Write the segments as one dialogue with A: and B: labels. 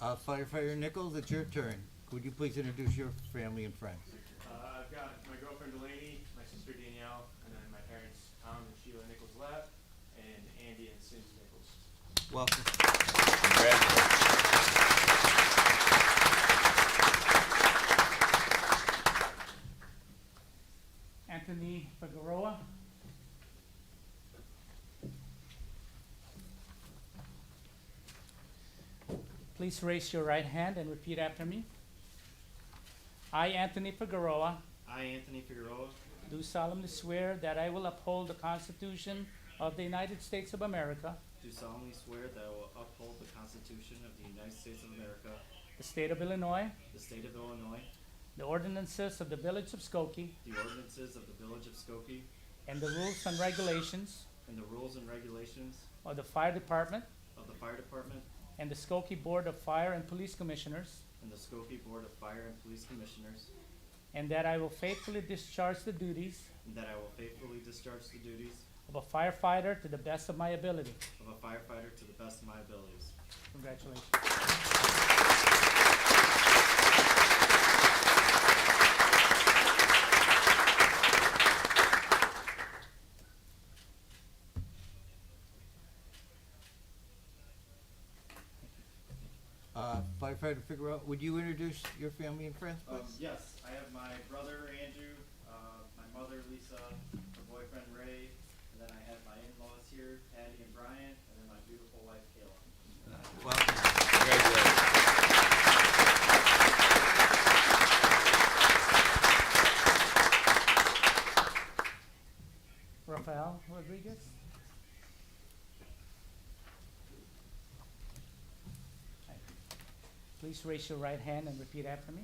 A: Uh, Firefighter Nichols, it's your turn. Would you please introduce your family and friends?
B: Uh, I've got my girlfriend Delaney, my sister Danielle, and then my parents Tom and Sheila Nichols left, and Andy and Cindy Nichols.
A: Welcome.
C: Anthony Figueroa. Please raise your right hand and repeat after me. I, Anthony Figueroa,
B: I, Anthony Figueroa,
C: do solemnly swear that I will uphold the Constitution of the United States of America,
D: Do solemnly swear that I will uphold the Constitution of the United States of America,
C: the state of Illinois,
D: the state of Illinois,
C: the ordinances of the village of Skokie,
D: the ordinances of the village of Skokie,
C: and the rules and regulations
D: and the rules and regulations
C: of the fire department
D: of the fire department
C: and the Skokie Board of Fire and Police Commissioners,
D: and the Skokie Board of Fire and Police Commissioners,
C: and that I will faithfully discharge the duties
D: and that I will faithfully discharge the duties
C: of a firefighter to the best of my ability.
D: of a firefighter to the best of my abilities.
C: Congratulations.
A: Uh, Firefighter Figueroa, would you introduce your family and friends,
D: Um,
A: please?
D: yes, I have my brother Andrew, uh, my mother Lisa, my boyfriend Ray, and then I have my in-laws here, Patty and Brian, and then my beautiful wife Kayla.
A: Welcome.
C: Rafael Rodriguez. Please raise your right hand and repeat after me.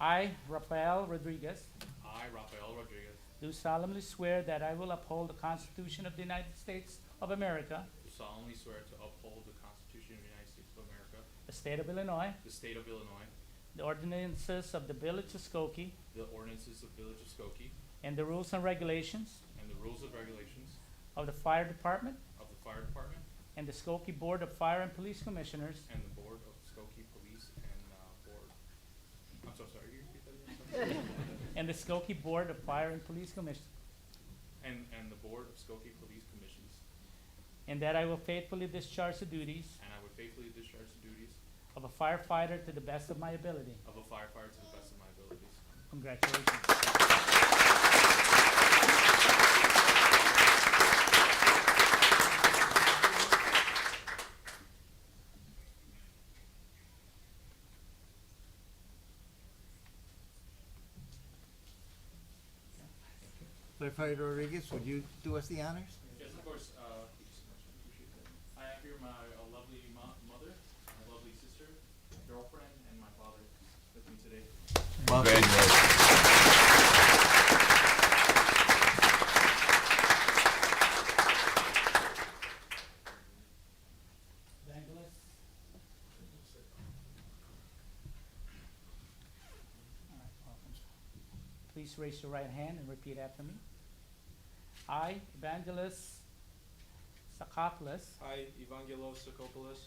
C: I, Rafael Rodriguez,
E: I, Rafael Rodriguez,
C: do solemnly swear that I will uphold the Constitution of the United States of America,
E: do solemnly swear to uphold the Constitution of the United States of America,
C: the state of Illinois,
E: the state of Illinois,
C: the ordinances of the village of Skokie,
E: the ordinances of Village of Skokie,
C: and the rules and regulations
E: and the rules and regulations
C: of the fire department
E: of the Fire Department
C: and the Skokie Board of Fire and Police Commissioners,
E: and the Board of Skokie Police and uh, Board. I'm so sorry, you repeat that again? Sorry.
C: and the Skokie Board of Fire and Police Commissioners,
E: And, and the Board of Skokie Police Commissions,
C: and that I will faithfully discharge the duties
E: and I would faithfully discharge the duties
C: of a firefighter to the best of my ability.
E: of a firefighter to the best of my abilities.
C: Congratulations.
A: Firefighter Rodriguez, would you do us the honors?
E: Yes, of course. Uh, thank you so much. I appreciate that. I have here my uh, lovely mo- mother, my lovely sister, my girlfriend, and my father with me today.
A: Welcome.
C: Evangelist. All right, welcome. Please raise your right hand and repeat after me. I, Evangelist Sakopoulos,
B: I, Evangelos Sokopoulos,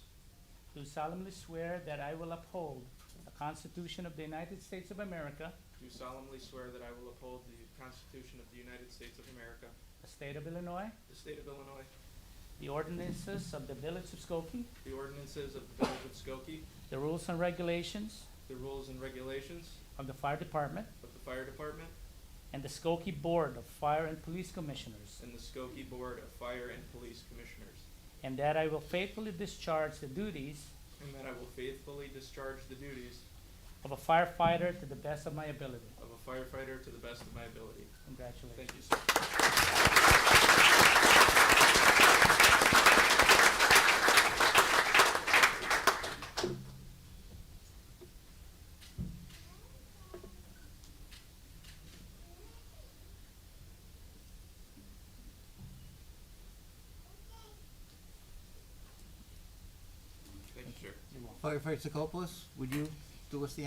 C: do solemnly swear that I will uphold the Constitution of the United States of America,
B: do solemnly swear that I will uphold the Constitution of the United States of America,
C: the state of Illinois,
B: the state of Illinois,
C: the ordinances of the village of Skokie,
B: the ordinances of the village of Skokie,
C: the rules and regulations
B: the rules and regulations
C: of the fire department,
B: of the fire department,
C: and the Skokie Board of Fire and Police Commissioners,
B: and the Skokie Board of Fire and Police Commissioners,
C: and that I will faithfully discharge the duties
B: and that I will faithfully discharge the duties
C: of a firefighter to the best of my ability.
B: of a firefighter to the best of my ability.
C: Congratulations.
B: Thank you, sir.
E: Thank you, sir.
C: You're welcome.
A: Firefighter Sikopoulos, would you do us the